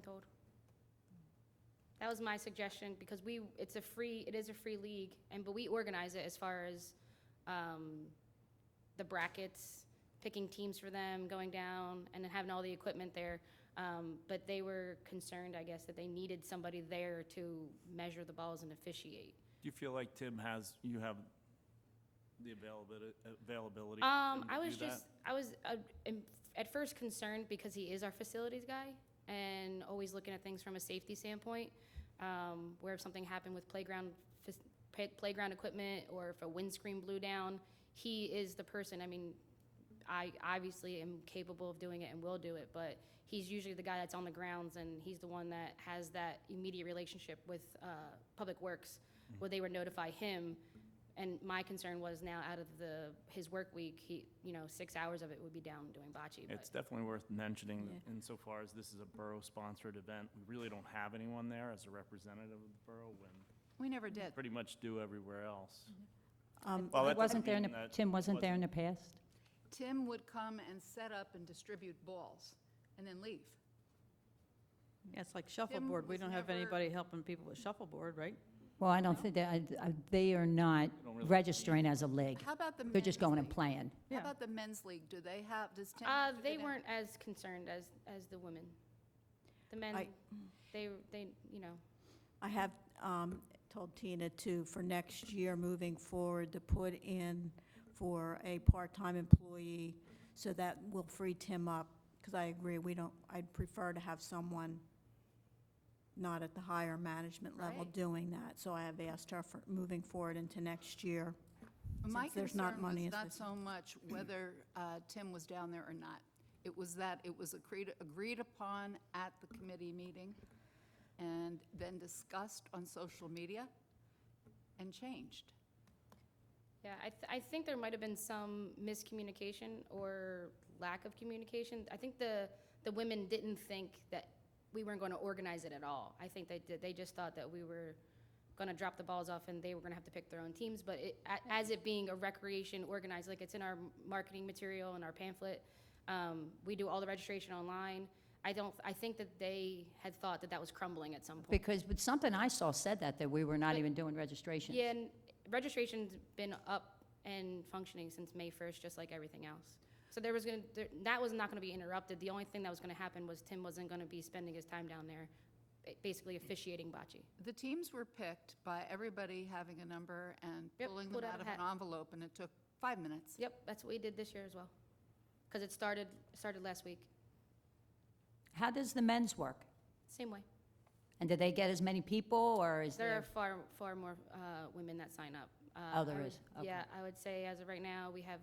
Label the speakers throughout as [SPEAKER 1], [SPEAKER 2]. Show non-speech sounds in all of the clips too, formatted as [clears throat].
[SPEAKER 1] told. That was my suggestion, because we, it's a free, it is a free league, and, but we organize it as far as, um, the brackets, picking teams for them, going down, and then having all the equipment there. Um, but they were concerned, I guess, that they needed somebody there to measure the balls and officiate.
[SPEAKER 2] Do you feel like Tim has, you have the availability, availability? for
[SPEAKER 1] Um,
[SPEAKER 2] him to
[SPEAKER 1] I
[SPEAKER 2] do
[SPEAKER 1] was
[SPEAKER 2] that?
[SPEAKER 1] just, I was uh, in- at first concerned because he is our facilities guy and always looking at things from a safety standpoint. Um, where if something happened with playground, fas- pa- playground equipment or if a windscreen blew down, he is the person. I mean, I obviously am capable of doing it and will do it, but he's usually the guy that's on the grounds and he's the one that has that immediate relationship with uh, Public Works, where they would notify him. And my concern was now out of the, his work week, he, you know, six hours of it would be down doing bocce. but-
[SPEAKER 2] It's definitely worth mentioning
[SPEAKER 3] Yeah.
[SPEAKER 2] that insofar as this is a borough-sponsored event, we really don't have anyone there as a representative of the borough when
[SPEAKER 4] We never did.
[SPEAKER 2] pretty much do everywhere else.
[SPEAKER 3] Um,
[SPEAKER 2] Well, that doesn't
[SPEAKER 3] Wasn't there, in
[SPEAKER 2] mean
[SPEAKER 3] the-
[SPEAKER 2] that
[SPEAKER 3] Tim wasn't there in the past?
[SPEAKER 4] Tim would come and set up and distribute balls and then leave.
[SPEAKER 5] Yeah, it's like
[SPEAKER 4] Tim
[SPEAKER 5] shuffleboard. We
[SPEAKER 4] was
[SPEAKER 5] don't have
[SPEAKER 4] never-
[SPEAKER 5] anybody helping people with shuffleboard, right?
[SPEAKER 3] Well, I don't think, that- I- I- they are not
[SPEAKER 2] don't really-
[SPEAKER 3] registering as a league.
[SPEAKER 4] How about the men's
[SPEAKER 3] They're just going and
[SPEAKER 4] league?
[SPEAKER 3] playing.
[SPEAKER 4] How
[SPEAKER 5] Yeah.
[SPEAKER 4] about the men's league? Do they have, does Tim?
[SPEAKER 1] Uh,
[SPEAKER 4] have to
[SPEAKER 1] they
[SPEAKER 4] go down?
[SPEAKER 1] weren't as concerned as, as the women. The men,
[SPEAKER 6] I-
[SPEAKER 1] they, they, you know.
[SPEAKER 6] I have um, told Tina to, for next year, moving forward, to put in for a part-time employee, so that will free Tim up, because I agree, we don't, I'd prefer to have someone not at the higher management level
[SPEAKER 4] Right.
[SPEAKER 6] doing that, so I have asked her for, moving forward into next year.
[SPEAKER 4] My
[SPEAKER 6] since there's not
[SPEAKER 4] concern
[SPEAKER 6] money
[SPEAKER 4] was
[SPEAKER 6] as
[SPEAKER 4] not
[SPEAKER 6] this-
[SPEAKER 4] so
[SPEAKER 3] [clears throat]
[SPEAKER 4] much whether uh, Tim was down there or not. It was that it was agreed, agreed upon at the committee meeting and then discussed on social media and changed.
[SPEAKER 1] Yeah, I, th- I think there might have been some miscommunication or lack of communication. I think the, the women didn't think that we weren't going to organize it at all. I think they did, they just thought that we were going to drop the balls off and they were going to have to pick their own teams. But it, a- as it being a recreation organized, like it's in our marketing material and our pamphlet, um, we do all the registration online. I don't, I think that they had thought that that was crumbling at some point.
[SPEAKER 3] Because, but something I saw said that, that we were not
[SPEAKER 1] But-
[SPEAKER 3] even doing registration.
[SPEAKER 1] Yeah, and registration's been up and functioning since May first, just like everything else. So there was gonna, there- that was not gonna be interrupted. The only thing that was gonna happen was Tim wasn't gonna be spending his time down there, ba- basically officiating bocce.
[SPEAKER 4] The teams were picked by everybody having a number and
[SPEAKER 1] Yep,
[SPEAKER 4] pulling
[SPEAKER 1] pulled
[SPEAKER 4] them
[SPEAKER 1] out
[SPEAKER 4] out
[SPEAKER 1] a
[SPEAKER 4] of an
[SPEAKER 1] hat.
[SPEAKER 4] envelope, and it took five minutes.
[SPEAKER 1] Yep, that's what we did this year as well. Because it started, started last week,
[SPEAKER 3] How does the men's work?
[SPEAKER 1] same way.
[SPEAKER 3] And do they get as many people, or is
[SPEAKER 1] There are
[SPEAKER 3] there?
[SPEAKER 1] far, far more uh, women that sign up. Uh,
[SPEAKER 3] Oh, there
[SPEAKER 1] I would-
[SPEAKER 3] is. Okay.
[SPEAKER 1] Yeah, I would say as of right now, we have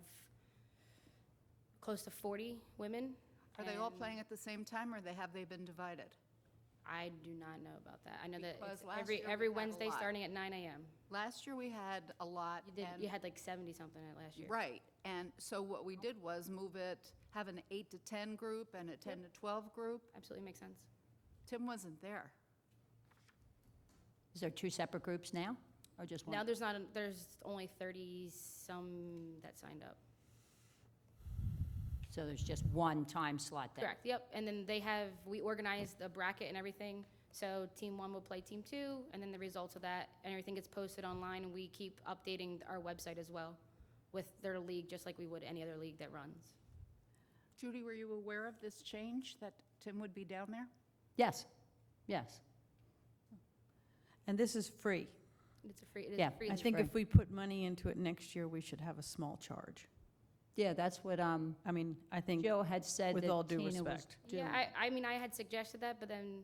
[SPEAKER 1] close to forty women.
[SPEAKER 4] Are they all
[SPEAKER 1] and-
[SPEAKER 4] playing at the same time, or they, have they been divided?
[SPEAKER 1] I do not know about that. I know that
[SPEAKER 4] Because
[SPEAKER 1] it's
[SPEAKER 4] last
[SPEAKER 1] every,
[SPEAKER 4] year we
[SPEAKER 1] every
[SPEAKER 4] had a
[SPEAKER 1] Wednesday
[SPEAKER 4] lot.
[SPEAKER 1] starting at nine AM.
[SPEAKER 4] Last year, we had a lot,
[SPEAKER 1] You did, you
[SPEAKER 4] and,
[SPEAKER 1] had like seventy something at last year.
[SPEAKER 4] right, and so what we did was move it, have an eight to 10 group and a 10 to 12 group.
[SPEAKER 1] Absolutely makes sense.
[SPEAKER 4] Tim wasn't there.
[SPEAKER 3] Is there two separate groups now, or just
[SPEAKER 1] Now
[SPEAKER 3] one?
[SPEAKER 1] there's not, a- there's only thirty some that signed up.
[SPEAKER 3] So there's just one time slot there?
[SPEAKER 1] Correct, yep. And then they have, we organized the bracket and everything. So team one will play team two and then the results of that and everything gets posted online and we keep updating our website as well with their league, just like we would any other league that runs.
[SPEAKER 4] Judy, were you aware of this change, that Tim would be down there?
[SPEAKER 3] Yes, yes.
[SPEAKER 5] And this is free.
[SPEAKER 1] It's a free, it is a
[SPEAKER 3] Yeah,
[SPEAKER 1] free.
[SPEAKER 5] I
[SPEAKER 1] league.
[SPEAKER 5] think
[SPEAKER 3] free.
[SPEAKER 5] if we put money into it next year, we should have a small charge.
[SPEAKER 3] Yeah, that's what um,
[SPEAKER 5] I mean, I think
[SPEAKER 3] Joe had said that
[SPEAKER 5] with all due
[SPEAKER 3] Tina was
[SPEAKER 5] respect.
[SPEAKER 3] doing.
[SPEAKER 1] Yeah, I, I mean, I had suggested that, but then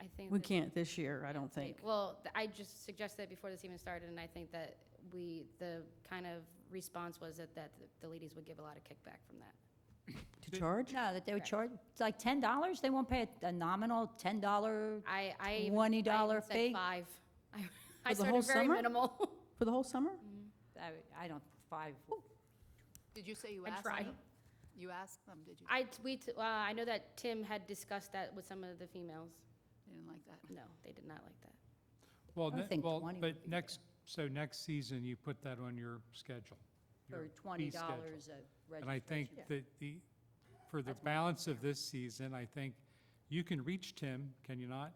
[SPEAKER 1] I think.
[SPEAKER 5] we
[SPEAKER 1] that-
[SPEAKER 5] can't this year, I don't think.
[SPEAKER 1] Well, th- I just suggested it before this even started, and I think that we, the kind of response was that, that the ladies would give a lot of kickback from that.
[SPEAKER 5] To charge?
[SPEAKER 3] No, that they would
[SPEAKER 1] Correct.
[SPEAKER 3] charge, it's like ten dollars, they won't pay a- a nominal ten dollar,
[SPEAKER 1] I, I. even- I
[SPEAKER 3] twenty dollar
[SPEAKER 1] even said
[SPEAKER 3] fee?
[SPEAKER 1] Five. [laughs] I- I
[SPEAKER 5] the whole
[SPEAKER 1] started very
[SPEAKER 5] summer?
[SPEAKER 1] minimal. [laughs]
[SPEAKER 5] For the whole summer?
[SPEAKER 3] I I don't, five,
[SPEAKER 4] Did you say you
[SPEAKER 1] I
[SPEAKER 4] asked
[SPEAKER 1] tried.
[SPEAKER 4] them? You asked them, did you?
[SPEAKER 1] I, t- we, t- uh, I know that Tim had discussed that with some of the females.
[SPEAKER 4] They Didn't like that.
[SPEAKER 1] No, they did not like that.
[SPEAKER 7] Well,
[SPEAKER 3] I
[SPEAKER 7] ne-
[SPEAKER 3] think
[SPEAKER 7] well,
[SPEAKER 3] 20 would
[SPEAKER 7] but
[SPEAKER 3] be
[SPEAKER 7] next, so next season, you put that on your schedule. your
[SPEAKER 3] or
[SPEAKER 7] fee
[SPEAKER 3] twenty
[SPEAKER 7] schedule.
[SPEAKER 3] dollars a registration.
[SPEAKER 7] And I think that the, for the balance of this season, I think You can reach Tim, can you not?